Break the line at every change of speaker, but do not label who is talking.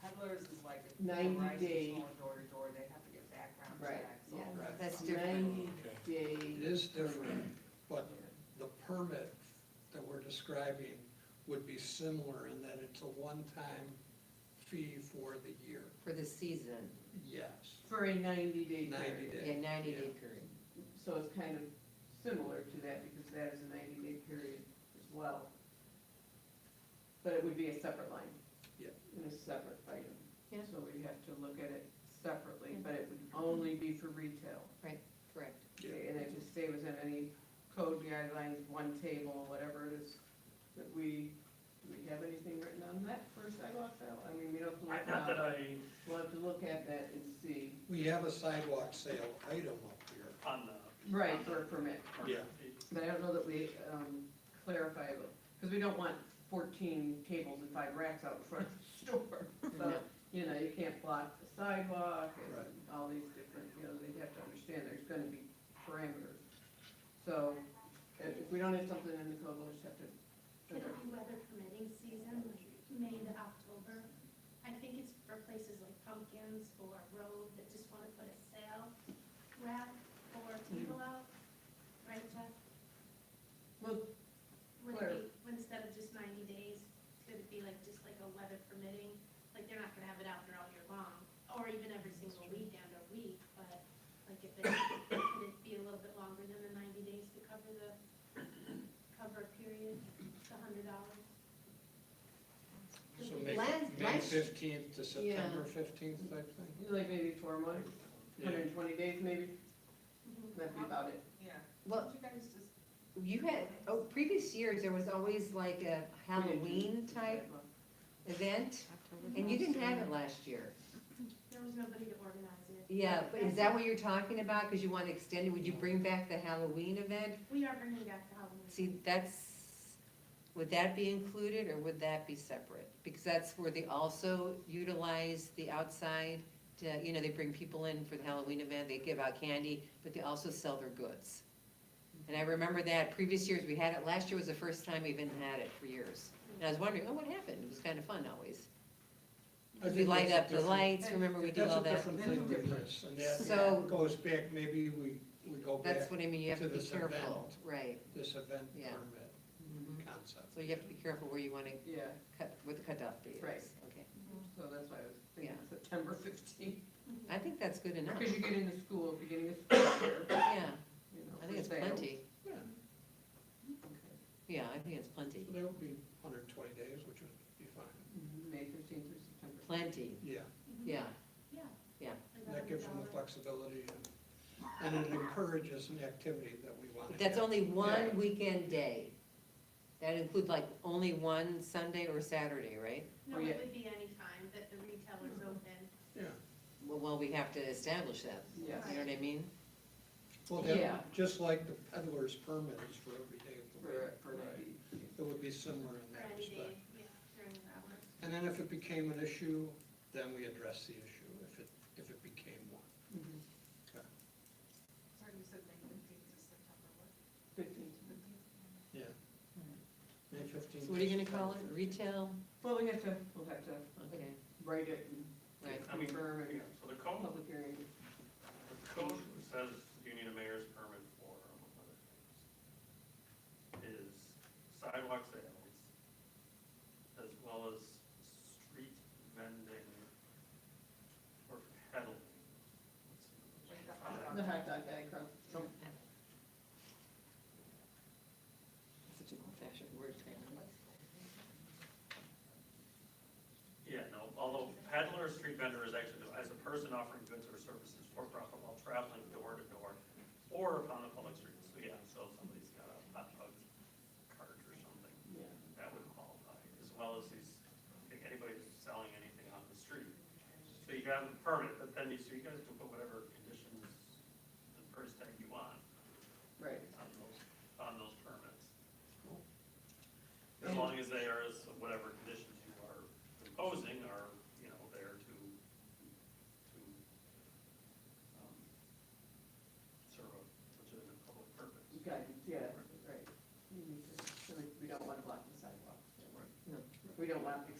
Settlers is like. if
90
Rice is
day.
going Door to door, they have to get background
Right,
checks.
yeah.
all that
That's
stuff.
different.
Ninety
Okay.
day.
It is different, but the permit that we're describing would be similar in that it's a one-time fee for the year,
for the season,
yes.
For a ninety day
Ninety
period.
days.
yeah, ninety day period.
So it's kind of similar to that because that is a ninety day period as well. But it would be a separate line.
Yeah.
And a separate item.
Yeah.
So we'd have to look at it separately, but it would only be for retail.
Correct.
Yeah.
Okay, And it just say within any code guidelines, one table, whatever it is that we, do we have anything written on that for sidewalk sale? I mean, we don't. have to look
Not that
now.
I,
We'll have to look at that and see.
We have a sidewalk sale item up here.
on the.
Right, for a permit.
on the-
Yeah.
But I don't know that we um, clarify, because we don't want fourteen tables and five racks out in front of the store. So,
No.
you know, you can't block the sidewalk and
Right.
all these different, you know, they'd have to understand there's gonna be parameters. So if if we don't have something in the code, we'll just have to.
Could it be weather permitting season, like May to October? I think it's for places like pumpkins or road that just want to put a sale rack or table out, right, Jeff?
Well,
Would it be, instead of just ninety days, could it be like, just like a weather permitting? Like, they're not gonna have it out there all year long, or even every single weekend or week, but like if they, could it be a little bit longer than the ninety days to cover the, cover a period, the hundred dollars?
So May,
Last-
May
last-
fifteenth to September fifteenth type thing?
like maybe four months, hundred and twenty days maybe,
Mm-hmm.
that'd be about it.
Yeah.
Well,
Don't you guys just,
you had, oh, previous years, there was always like a Halloween
Mm-hmm.
type event, and you didn't have it last year.
There was nobody to organize it.
Yeah, but is that what you're talking about, because you want to extend it, would you bring back the Halloween event?
We are bringing back the Halloween.
See, that's, would that be included, or would that be separate? Because that's where they also utilize the outside, to, you know, they bring people in for the Halloween event, they give out candy, but they also sell their goods. And I remember that, previous years, we had it, last year was the first time we even had it for years. And I was wondering, oh, what happened? It was kind of fun always.
I
We
think
light
that's a
up the
different-
lights, remember, we did
That's
all
a
that.
different thing than this, and
So-
that goes back, maybe we, we go back
That's what I mean, you have
to
to be
this
careful,
event.
right,
this event
Yeah.
permit concept.
so you have to be careful where you wanna
Yeah,
cut, what the cutoff date is.
Right.
Okay,
so that's why I was thinking September fifteenth,
Mm-hmm.
I think that's good enough,
because you get into school, beginning of school year,
yeah.
you know.
I think it's
for sale.
plenty.
Yeah,
Yeah, I think it's plenty.
so that would be hundred and twenty days, which would be fine,
Mhm, May fifteenth through September.
Plenty,
yeah.
Mhm.
yeah.
Yeah.
Yeah.
Like
That gives them the
$100.
flexibility and, and it encourages an activity that we want to
But
have.
That's only
Yeah.
one weekend day. That includes like only one Sunday or Saturday, right?
No,
Oh, yeah.
it would be any time that the retailer's open.
Yeah,
Well, well, we have to establish that,
Yes.
you know what I mean?
well,
Yeah.
that, just like the peddler's permit is for every day of the
For,
week.
for ninety.
It would be similar in
For
that
any
respect.
day, yeah, during the hours.
And then if it became an issue, then we address the issue, if it, if it became one.
Mm-hmm.
sorry, you said May fifteenth to September what?
Fifteenth.
Yeah. May fifteenth.
Hmm. So what are you gonna call it? Retail?
Well, we have to, we'll have to
Okay,
write it and
right.
I mean,
confirm it,
So the code,
public hearing.
the code says you need a mayor's permit for, among other things, is sidewalk sales, as well as street vending or peddling.
Like the hot dog.
The hot dog guy across from,
Such an old-fashioned word, man.
Yeah, no, although peddler or street vendor is actually, defined as a person offering goods or services for profit while traveling door to door or upon the public streets. So yeah, so if somebody's got a hot dog cart or something,
yeah.
that would qualify, as well as these, if anybody's selling anything on the street. So you have a permit, but then you, so you guys can put whatever conditions and price tag you want
Right.
on those, on those permits. As long as they are, as whatever conditions you are imposing are, you know, there to, to, um, serve a legitimate public purpose.
Guidance, yeah, right. We need to- so we- We don't want to block the sidewalk.
Right.
No.
We don't want people